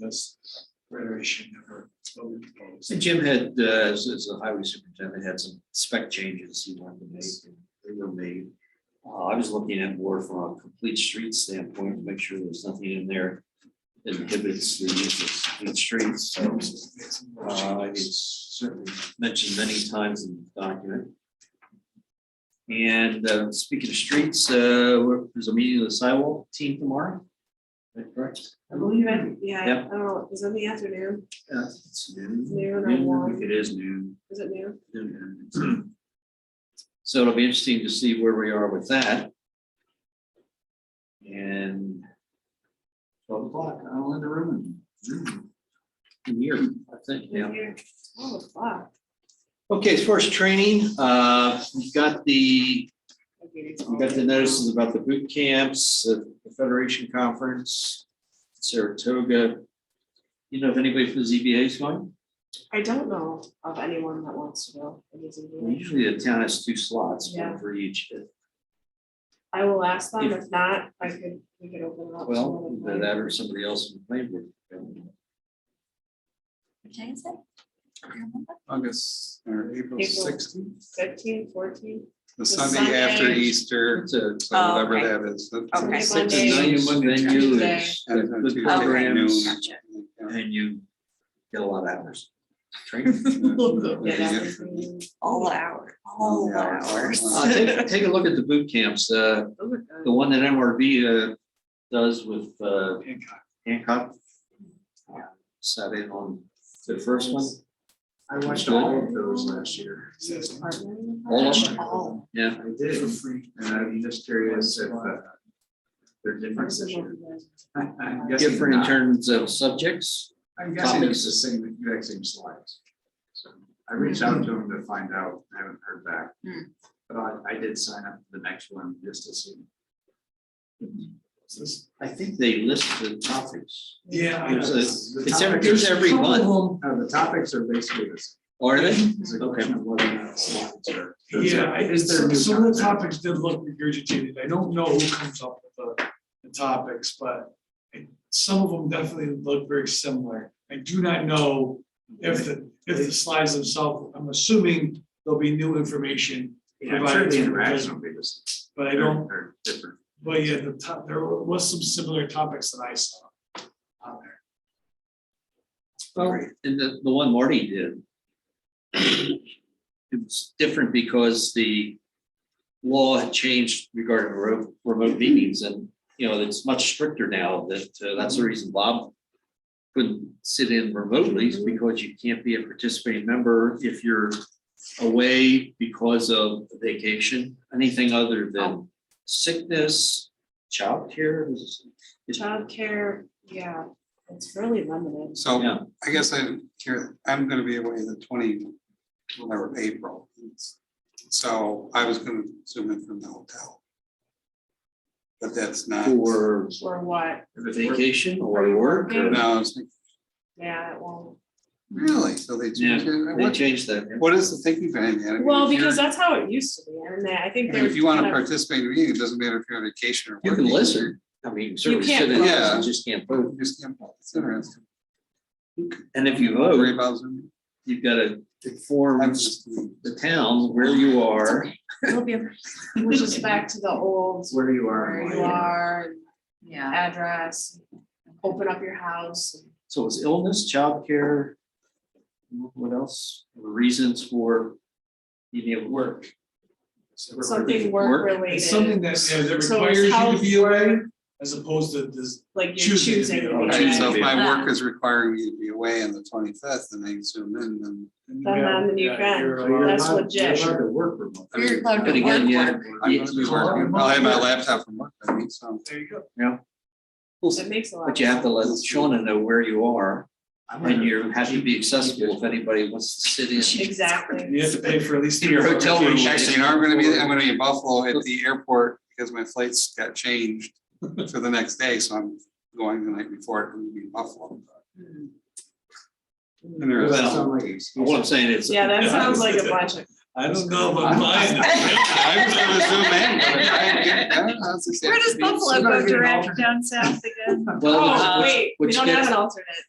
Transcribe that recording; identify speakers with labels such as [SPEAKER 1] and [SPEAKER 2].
[SPEAKER 1] this iteration of her vote proposed.
[SPEAKER 2] So Jim had, uh, as, as the highway superintendent, had some spec changes he wanted to make, and they were made. Uh, I was looking at more from a complete street standpoint, to make sure there's nothing in there that inhibits the use of complete streets, so. Uh, it's certainly mentioned many times in the document. And, uh, speaking of streets, uh, we're- there's a meeting of the sidewalk team tomorrow. Is that correct?
[SPEAKER 3] I believe it, yeah, I
[SPEAKER 2] Yeah.
[SPEAKER 3] don't know, is it the afternoon,
[SPEAKER 2] Yeah, it's noon.
[SPEAKER 3] Noon or
[SPEAKER 2] Noon, I
[SPEAKER 3] one?
[SPEAKER 2] think It is noon.
[SPEAKER 3] is it noon?
[SPEAKER 2] So it'll be interesting to see where we are with that. And twelve o'clock, I'll in the room. Here, I think, yeah.
[SPEAKER 3] Here, Twelve o'clock.
[SPEAKER 2] Okay, as far as training, uh, we've got the, we got the notices about the boot camps, the Federation Conference, Saratoga. You know if anybody for the ZBA is going?
[SPEAKER 3] I don't know of anyone that wants to go. It is a meeting.
[SPEAKER 2] Usually the town has two slots,
[SPEAKER 3] Yeah.
[SPEAKER 2] one for each.
[SPEAKER 3] I will ask them,
[SPEAKER 2] If-
[SPEAKER 3] if not, I could, we could open it up. to
[SPEAKER 2] Well,
[SPEAKER 3] another
[SPEAKER 2] either
[SPEAKER 3] night.
[SPEAKER 2] that or somebody else in Plainwood.
[SPEAKER 4] Can I say?
[SPEAKER 5] August or April
[SPEAKER 3] April.
[SPEAKER 5] sixteenth,
[SPEAKER 3] Fifteen, fourteen,
[SPEAKER 5] the Sunday after
[SPEAKER 3] Sunday.
[SPEAKER 5] Easter,
[SPEAKER 2] It's a,
[SPEAKER 5] so
[SPEAKER 4] Oh,
[SPEAKER 5] whatever
[SPEAKER 4] okay.
[SPEAKER 5] that is. that's the
[SPEAKER 4] Okay.
[SPEAKER 5] 16th.
[SPEAKER 2] it's a
[SPEAKER 3] Monday.
[SPEAKER 2] nine one venue, it's
[SPEAKER 5] And it's on
[SPEAKER 2] good
[SPEAKER 5] Tuesday at
[SPEAKER 2] programs,
[SPEAKER 5] noon.
[SPEAKER 4] Gotcha.
[SPEAKER 2] and you get a lot of hours. Training.
[SPEAKER 3] yeah, that
[SPEAKER 5] Yeah.
[SPEAKER 3] was me.
[SPEAKER 4] All hour, all hours.
[SPEAKER 2] Uh, take, take a look at the boot camps, uh,
[SPEAKER 3] Those are good.
[SPEAKER 2] the one that MRV, uh, does with, uh,
[SPEAKER 1] Hancock.
[SPEAKER 2] Hancock. Uh, Sat in on the first one,
[SPEAKER 1] I watched
[SPEAKER 2] all
[SPEAKER 1] all of those last year. Says-
[SPEAKER 3] Partnering with
[SPEAKER 2] all of them,
[SPEAKER 4] Oh,
[SPEAKER 2] yeah,
[SPEAKER 1] I did for free, and I'm just curious if uh, there are
[SPEAKER 3] partners
[SPEAKER 1] differences.
[SPEAKER 3] and what you guys-
[SPEAKER 1] I- I'm guessing
[SPEAKER 2] different in
[SPEAKER 1] not.
[SPEAKER 2] terms of subjects.
[SPEAKER 1] I'm guessing it's the same, exact same slides. So I reached out to him to find out, I haven't heard back.
[SPEAKER 4] Hmm.
[SPEAKER 1] But I, I did sign up for the next one just to see.
[SPEAKER 2] I think they list the topics,
[SPEAKER 1] Yeah.
[SPEAKER 2] I know.
[SPEAKER 1] The
[SPEAKER 2] it's every,
[SPEAKER 1] topics-
[SPEAKER 2] it's every month,
[SPEAKER 1] uh, the topics are basically the same.
[SPEAKER 2] are they?
[SPEAKER 1] It's a question of whether or not slides are.
[SPEAKER 6] Yeah, I-
[SPEAKER 1] Is there
[SPEAKER 6] some
[SPEAKER 1] new
[SPEAKER 6] some of the
[SPEAKER 1] content?
[SPEAKER 6] topics did look regurgitated, I don't know who comes up with the, the topics, but I- some of them definitely look very similar. I do not know if the, if the slides themselves, I'm assuming there't be new information,
[SPEAKER 1] Yeah, I'm sure the
[SPEAKER 6] Provided-
[SPEAKER 1] interaction will be the same.
[SPEAKER 6] but I don't,
[SPEAKER 1] They're different.
[SPEAKER 6] but yeah, the top, there was some similar topics that I saw on there.
[SPEAKER 2] Well, and the, the one Marty did. It was different because the law had changed regarding remote, remote meetings and, you know, it's much stricter now that, uh, that's the reason Bob. Couldn't sit in remotely is because you can't be a participating member if you're away because of vacation, anything other than sickness, childcare. is- is-
[SPEAKER 3] Childcare, yeah, it's really limited.
[SPEAKER 5] So
[SPEAKER 2] Yeah.
[SPEAKER 5] I guess I care, I'm gonna be away the twenty, whatever, April. So I was gonna zoom in from the hotel. But that's not, no,
[SPEAKER 2] For
[SPEAKER 3] Or what,
[SPEAKER 1] If it's worth-
[SPEAKER 2] vacation or work or.
[SPEAKER 5] it's like,
[SPEAKER 3] yeah, it won't.
[SPEAKER 5] really, so they changed it,
[SPEAKER 2] They
[SPEAKER 5] What-
[SPEAKER 2] changed that.
[SPEAKER 5] what is the thinking behind that? I mean,
[SPEAKER 3] Well,
[SPEAKER 5] if you're-
[SPEAKER 3] because that's how it used to be, and I think
[SPEAKER 5] I
[SPEAKER 3] they
[SPEAKER 5] mean,
[SPEAKER 3] were
[SPEAKER 5] If you wanna
[SPEAKER 3] kind of-
[SPEAKER 5] participate in a meeting, it doesn't matter if you're on vacation or.
[SPEAKER 2] You can
[SPEAKER 5] working.
[SPEAKER 2] listen. I mean, certainly
[SPEAKER 3] can't
[SPEAKER 2] sit in,
[SPEAKER 5] vote.
[SPEAKER 2] you just can't vote.
[SPEAKER 5] You just can't, it's interesting.
[SPEAKER 2] And if you
[SPEAKER 5] Worry
[SPEAKER 2] vote,
[SPEAKER 5] about Zoom.
[SPEAKER 2] you've got to inform
[SPEAKER 5] I'm just-
[SPEAKER 2] the town where you are.
[SPEAKER 4] It'll be,
[SPEAKER 3] Which is back to the old,
[SPEAKER 1] Where you are. and
[SPEAKER 3] where
[SPEAKER 1] why
[SPEAKER 3] you are,
[SPEAKER 4] yeah.
[SPEAKER 3] address, open up your house.
[SPEAKER 2] So it's illness, childcare. What else? Reasons for being able to work.
[SPEAKER 3] Something work
[SPEAKER 6] It's something
[SPEAKER 3] related,
[SPEAKER 6] that, yeah, that
[SPEAKER 3] So
[SPEAKER 6] requires
[SPEAKER 3] it's
[SPEAKER 6] you to
[SPEAKER 3] health
[SPEAKER 6] be away,
[SPEAKER 3] work.
[SPEAKER 6] as opposed to this,
[SPEAKER 3] like you're
[SPEAKER 6] Choosing to be
[SPEAKER 3] choosing.
[SPEAKER 6] the
[SPEAKER 3] to
[SPEAKER 6] one.
[SPEAKER 3] be
[SPEAKER 5] Alright,
[SPEAKER 3] there.
[SPEAKER 5] so if my
[SPEAKER 4] Yeah.
[SPEAKER 5] work is requiring me to be away on the twenty-fifth and I zoom in, then
[SPEAKER 6] and
[SPEAKER 3] Then
[SPEAKER 6] yeah,
[SPEAKER 3] then you
[SPEAKER 6] yeah,
[SPEAKER 3] can.
[SPEAKER 6] you're
[SPEAKER 1] So
[SPEAKER 6] allowed-
[SPEAKER 1] you're
[SPEAKER 3] That's
[SPEAKER 1] allowed-
[SPEAKER 3] legit.
[SPEAKER 1] You're allowed to work remote.
[SPEAKER 4] You're allowed
[SPEAKER 2] But again,
[SPEAKER 4] work,
[SPEAKER 2] yeah.
[SPEAKER 4] work.
[SPEAKER 5] I'm gonna be working, I'll have my laptop from work, I mean, so.
[SPEAKER 6] There you go.
[SPEAKER 3] It makes a lot.
[SPEAKER 2] But you have to let Shawna know where you are
[SPEAKER 1] I'm
[SPEAKER 2] and
[SPEAKER 1] gonna-
[SPEAKER 2] you have to be accessible if anybody wants to sit in.
[SPEAKER 3] Exactly.
[SPEAKER 6] You have to pay for at least.
[SPEAKER 2] In your
[SPEAKER 6] three
[SPEAKER 2] hotel room,
[SPEAKER 6] accommodations.
[SPEAKER 5] Actually, you know, I'm gonna be, I'm gonna be in Buffalo at the airport because my flights got changed for the next day, so I'm going the night before, I'm gonna be in Buffalo. And
[SPEAKER 1] Doesn't
[SPEAKER 5] there's-
[SPEAKER 1] sound like
[SPEAKER 2] What I'm
[SPEAKER 1] excuses.
[SPEAKER 2] saying is.
[SPEAKER 3] Yeah, that sounds like a bunch of.
[SPEAKER 6] I don't know about mine.
[SPEAKER 5] I was gonna zoom in, but I didn't get- I don't know, it's just-
[SPEAKER 4] Where does Buffalo go direct down south again?
[SPEAKER 2] Well,
[SPEAKER 3] Oh,
[SPEAKER 2] which-
[SPEAKER 3] wait, we
[SPEAKER 2] which
[SPEAKER 3] don't
[SPEAKER 2] gets-
[SPEAKER 3] have an alternate.